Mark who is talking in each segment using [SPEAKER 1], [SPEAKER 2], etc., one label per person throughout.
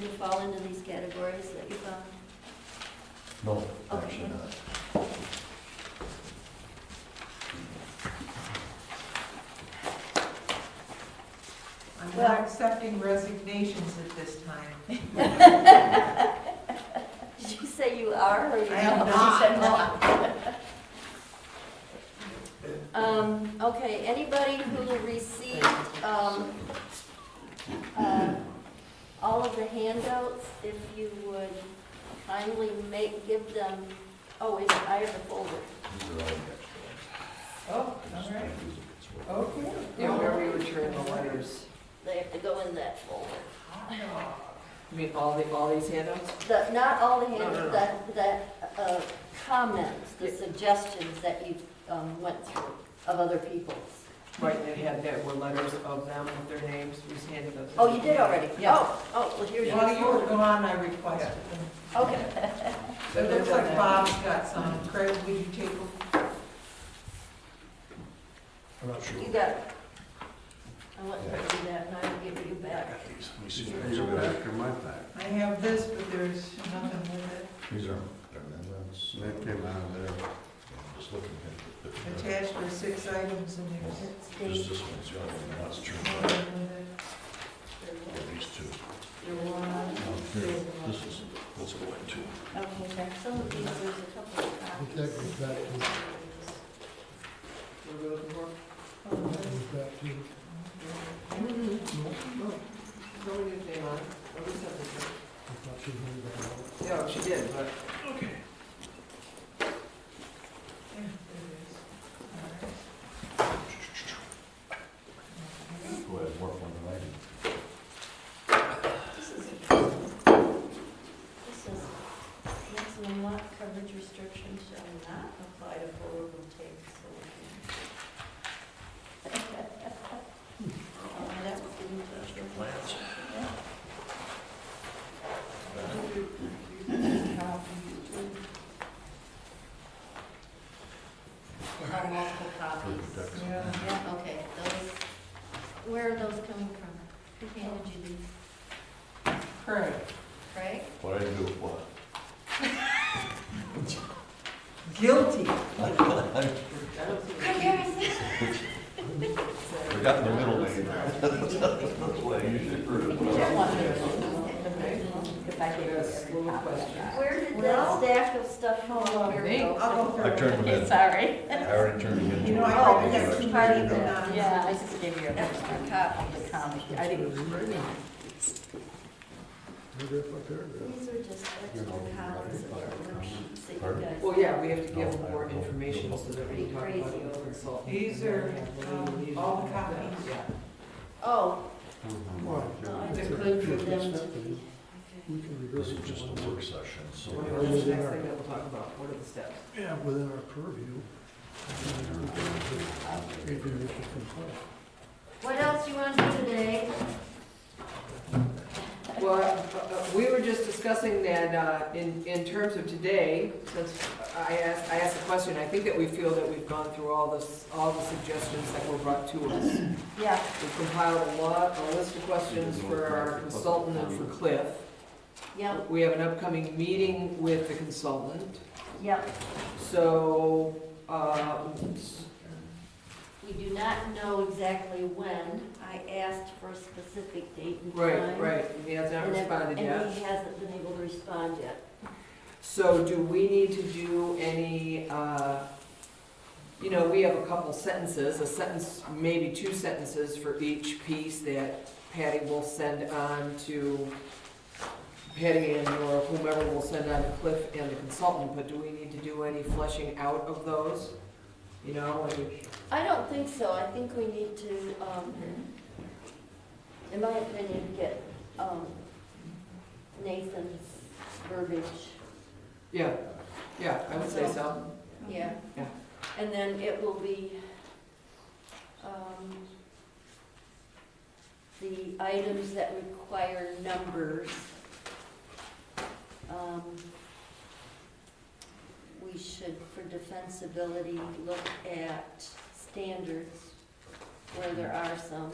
[SPEAKER 1] fall into these categories that you found?
[SPEAKER 2] No, actually
[SPEAKER 1] Okay.
[SPEAKER 2] not.
[SPEAKER 3] I'm
[SPEAKER 1] Well-
[SPEAKER 3] not accepting resignations at this time.
[SPEAKER 1] Did you say you are or you?
[SPEAKER 3] I am
[SPEAKER 1] don't?
[SPEAKER 3] not.
[SPEAKER 1] You said not. Um, okay, anybody who received, um, uh, all of the handouts, if you would kindly make, give them, oh, wait, I have a folder.
[SPEAKER 2] These are all the extra ones. I
[SPEAKER 3] Oh, all
[SPEAKER 2] just
[SPEAKER 3] right,
[SPEAKER 2] can't use it. It's what-
[SPEAKER 3] okay.
[SPEAKER 4] Yeah, where we return the letters.
[SPEAKER 1] They have to go in that folder.
[SPEAKER 4] You mean all the, all these handouts?
[SPEAKER 1] The, not all the
[SPEAKER 4] No, no, no.
[SPEAKER 1] handouts, the, the, uh, comments, the suggestions that you, um, went through of other people's.
[SPEAKER 4] Right, they had, that were letters of them with their names, we just handed those.
[SPEAKER 1] Oh, you did already?
[SPEAKER 4] Yeah.
[SPEAKER 1] Oh, oh, well, here's
[SPEAKER 3] While you were
[SPEAKER 1] your.
[SPEAKER 3] gone, I requested them.
[SPEAKER 1] Okay,
[SPEAKER 3] It looks like Bob's got some. Craig, will you take them? Oh.
[SPEAKER 2] I'm not sure.
[SPEAKER 1] you got it. I want to do that, and I will give it you
[SPEAKER 2] I
[SPEAKER 1] back.
[SPEAKER 2] got these. Let me see.
[SPEAKER 1] These
[SPEAKER 2] These
[SPEAKER 5] These
[SPEAKER 2] are,
[SPEAKER 5] are back in my pack.
[SPEAKER 3] I have this, but there's nothing with it.
[SPEAKER 2] these are, that's,
[SPEAKER 5] That came out of there.
[SPEAKER 2] just looking at it. but, uh,
[SPEAKER 3] Attached were six items and there's
[SPEAKER 1] It's
[SPEAKER 2] Just
[SPEAKER 1] dated,
[SPEAKER 2] this one's the other one, that's true.
[SPEAKER 3] nothing with it.
[SPEAKER 2] Or these two.
[SPEAKER 1] your one.
[SPEAKER 2] Now, here, this is, let's go into.
[SPEAKER 1] Okay, some of these, there's a couple of copies.
[SPEAKER 6] That goes back to,
[SPEAKER 4] What were we looking for?
[SPEAKER 6] that goes back to,
[SPEAKER 4] Nobody did name on it. Or we sent it
[SPEAKER 6] I thought she knew that.
[SPEAKER 4] to her. No, she did, but
[SPEAKER 2] Okay.
[SPEAKER 3] Yeah, there it is. All right.
[SPEAKER 2] Go ahead, work on the lighting.
[SPEAKER 1] This is, this is, maximum lot coverage restrictions shall not apply to forward rotating solar. panels. Uh, That was given to us.
[SPEAKER 2] Master plans.
[SPEAKER 1] Oh, multiple copies.
[SPEAKER 3] Yeah.
[SPEAKER 1] Yeah, okay, those, where are those coming from? Who handed you these?
[SPEAKER 3] Craig,
[SPEAKER 1] Craig?
[SPEAKER 2] What I do, what?
[SPEAKER 3] guilty.
[SPEAKER 4] I don't see.
[SPEAKER 1] Craig Harris.
[SPEAKER 2] Forgot the middle name. That's what I usually prove.
[SPEAKER 4] Yes, little question.
[SPEAKER 1] Where did that
[SPEAKER 3] Well-
[SPEAKER 1] stack of stuff come
[SPEAKER 3] Hold on,
[SPEAKER 1] from?
[SPEAKER 4] me.
[SPEAKER 3] I'll go
[SPEAKER 2] I
[SPEAKER 3] first.
[SPEAKER 2] turned them in.
[SPEAKER 1] Sorry.
[SPEAKER 2] I already turned them in.
[SPEAKER 3] You know, I
[SPEAKER 1] Oh,
[SPEAKER 3] probably got
[SPEAKER 1] it's
[SPEAKER 3] too
[SPEAKER 1] part
[SPEAKER 3] many
[SPEAKER 1] of
[SPEAKER 3] of them.
[SPEAKER 1] the-
[SPEAKER 3] on.
[SPEAKER 7] Yeah, I just gave you an extra copy of the comic. I didn't
[SPEAKER 6] Paragraph by paragraph.
[SPEAKER 1] These are just extra copies of the worksheets that you
[SPEAKER 2] Pardon?
[SPEAKER 1] guys.
[SPEAKER 4] Well, yeah, we have to give more information so that we can talk about it with consultants.
[SPEAKER 3] These are, um, all the copies.
[SPEAKER 4] Yeah.
[SPEAKER 1] Oh,
[SPEAKER 6] Why?
[SPEAKER 1] they're good for them to be.
[SPEAKER 6] We can reverse
[SPEAKER 2] This
[SPEAKER 6] it.
[SPEAKER 2] is just a work session, so.
[SPEAKER 3] Oh,
[SPEAKER 4] What are the next thing that we'll talk about? What are the steps?
[SPEAKER 6] Yeah, within our purview. If you wish to comply.
[SPEAKER 1] What else you want to do today?
[SPEAKER 4] Well, uh, uh, we were just discussing that uh, in, in terms of today, since I asked, I asked a question, I think that we feel that we've gone through all this, all the suggestions that were brought to us.
[SPEAKER 1] Yeah.
[SPEAKER 4] We compiled a lot, a list of questions for our consultant and for Cliff.
[SPEAKER 1] Yep,
[SPEAKER 4] We have an upcoming meeting with the consultant,
[SPEAKER 1] yep.
[SPEAKER 4] so, uh,
[SPEAKER 1] We do not know exactly when. I asked for a specific date and time.
[SPEAKER 4] right, right, he has not
[SPEAKER 1] And if-
[SPEAKER 4] responded yet.
[SPEAKER 1] And he hasn't been able to respond yet.
[SPEAKER 4] So do we need to do any, uh, you know, we have a couple sentences, a sentence, maybe two sentences for each piece that Patty will send on to, Patty and or whomever will send on to Cliff and the consultant, but do we need to do any fleshing out of those? You know, like,
[SPEAKER 1] I don't think so. I think we need to, um, in my opinion, get, um, Nathan's verbiage.
[SPEAKER 4] yeah, yeah, I would say so.
[SPEAKER 1] Yeah.
[SPEAKER 4] Yeah.
[SPEAKER 1] And then it will be, um, the items that require numbers. Um, we should, for defensibility, look at standards where there are some.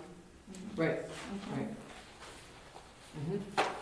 [SPEAKER 4] Right, right. Mhm.